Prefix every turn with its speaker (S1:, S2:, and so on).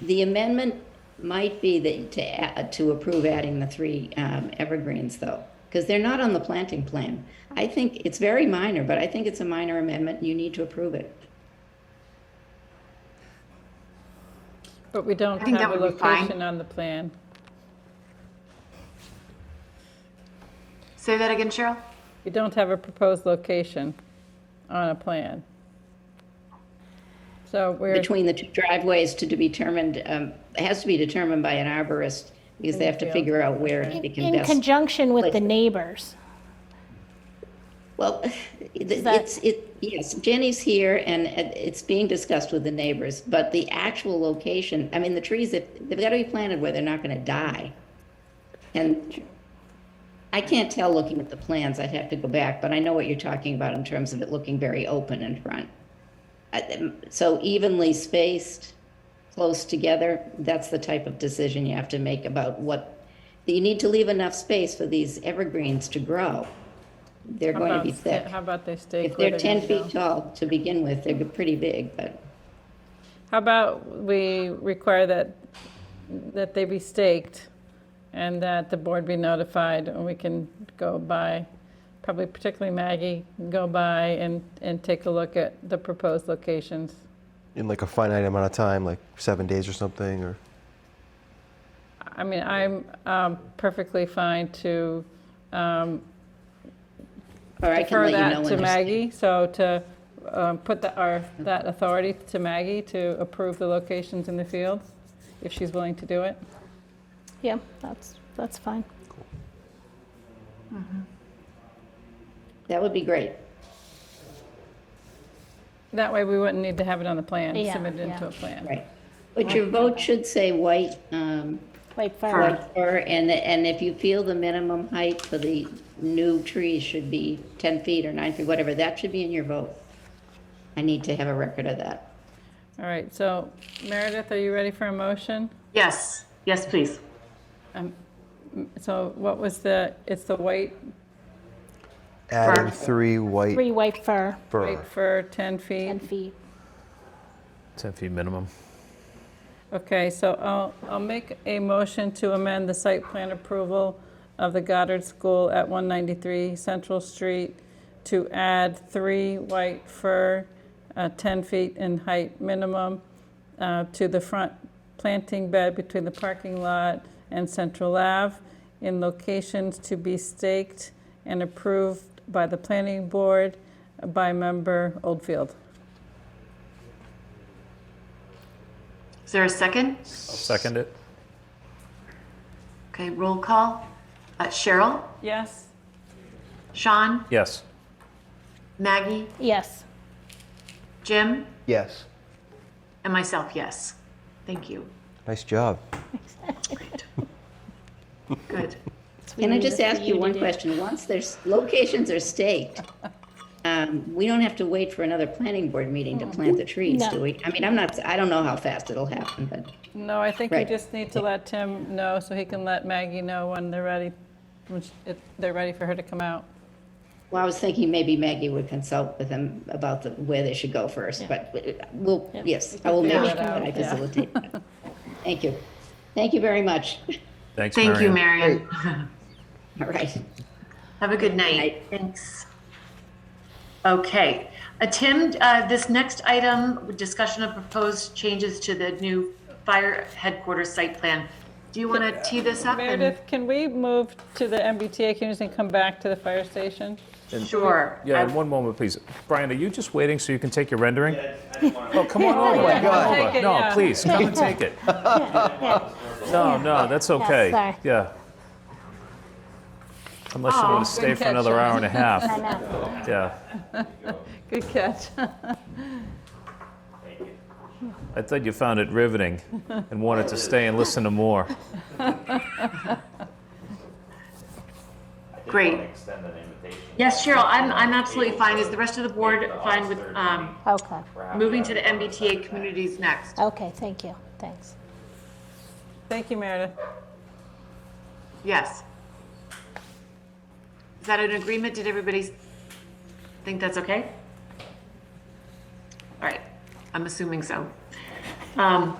S1: The amendment might be that to, a- to approve adding the three um, evergreens though, because they're not on the planting plan. I think it's very minor, but I think it's a minor amendment and you need to approve it.
S2: But we don't
S3: I think
S2: have a
S3: that would be fine.
S2: location on the plan.
S3: Say that again, Cheryl?
S2: We don't have a proposed location on a plan. So we're,
S1: Between the two driveways to be determined, um, it has to be determined by an arborist because they have to figure out where they can
S4: In
S1: best.
S4: conjunction with the
S1: Like-
S4: neighbors.
S1: Well, it- it's, it, yes, Jenny's here and it- it's being discussed with the neighbors, but the actual location, I mean, the trees, if- they've got to be planted where they're not going to die. And I can't tell looking at the plans, I'd have to go back, but I know what you're talking about in terms of it looking very open in front. I- um, So evenly spaced, close together, that's the type of decision you have to make about what, you need to leave enough space for these evergreens to grow. They're
S2: how
S1: going to
S2: about,
S1: be thick.
S2: sta- how about they stay
S1: If they're
S2: quitter
S1: ten
S2: and go?
S1: feet tall to begin with, they're pretty big, but
S2: How about we require that, that they be staked and that the board be notified and we can go by, probably particularly Maggie, go by and, and take a look at the proposed locations.
S5: in like a finite amount of time, like seven days or something, or
S2: I mean, I'm um, perfectly fine to
S1: or I can
S2: defer
S1: let you know.
S2: that
S1: when
S2: to
S1: there's-
S2: Maggie, so to um, put the- our- that authority to Maggie to approve the locations in the fields, if she's willing to do it.
S4: Yeah, that's, that's fine.
S1: That would be great.
S2: That way, we wouldn't need to have it on the plan,
S4: Yeah,
S2: submitted into
S4: yeah.
S2: a plan.
S1: Right. But your vote should say white, um,
S4: Wait for,
S1: white fir, and, and if you feel the minimum height for the new trees should be ten feet or nine feet, whatever, that should be in your vote. I need to have a record of that.
S2: All right, so Meredith, are you ready for a motion?
S3: Yes, yes, please.
S2: So what was the, it's the white
S5: adding
S3: Fur.
S5: three white
S4: three white fur,
S5: fur.
S2: white for 10 feet?
S4: 10 feet.
S6: 10 feet minimum.
S2: Okay, so I'll, I'll make a motion to amend the site plan approval of the Goddard School at 193 Central Street to add three white fir, uh, 10 feet in height minimum, uh, to the front planting bed between the parking lot and Central Ave in locations to be staked and approved by the planning board by member Oldfield.
S3: Is there a second?
S6: I'll second it.
S3: Okay, roll call. Uh, Cheryl,
S2: Yes?
S3: Sean,
S6: Yes.
S3: Maggie,
S4: Yes,
S3: Jim,
S5: Yes.
S3: and myself, yes. Thank you.
S5: Nice job.
S3: Good.
S1: Can I just ask you one question? Once there's, locations are staked, um, we don't have to wait for another planning board meeting
S2: Mm-hmm.
S1: to plant the trees,
S4: No.
S1: do we? I mean, I'm not, I don't know how fast it'll happen, but.
S2: No, I think we
S1: Right.
S2: just need to let Tim know so he can let Maggie know when they're ready, when sh- if they're ready for her to come out.
S1: Well, I was thinking maybe Maggie would consult with them about the, where they should go first, but uh, we'll, yes, I will make
S2: figure
S1: sure
S2: it
S1: that
S2: out,
S1: I
S2: yeah.
S1: facilitate that. Thank you. Thank you very much.
S6: Thanks,
S3: Thank you,
S6: Marianne.
S3: Marion.
S1: All right.
S3: Have a good night. Thanks. Okay. Uh, Tim, uh, this next item, discussion of proposed changes to the new fire headquarters site plan. Do you want to tee this up? and-
S2: Meredith, can we move to the MBTA community and come back to the fire station?
S3: Sure.
S6: Yeah,
S3: I-
S6: and one moment, please. Brian, are you just waiting so you can take your rendering? Oh, come on over.
S4: my
S6: Come on
S2: God.
S6: over.
S2: Take it,
S6: No,
S2: yeah.
S6: please, come and take it. No, no, that's okay.
S4: sorry.
S6: Yeah. Unless you want to stay
S2: good
S6: for
S2: catch,
S6: another hour and a
S4: I
S6: half.
S4: know.
S6: Yeah.
S2: Good catch.
S6: I thought you found it riveting and wanted to stay and listen to more.
S3: Great. Yes, Cheryl, I'm, I'm absolutely fine. Is the rest of the board fine with um,
S4: Okay,
S3: moving to the MBTA communities next?
S4: okay, thank you, thanks.
S2: Thank you, Meredith.
S3: Yes. Is that an agreement? Did everybody s- think that's okay? All right, I'm assuming so. Um,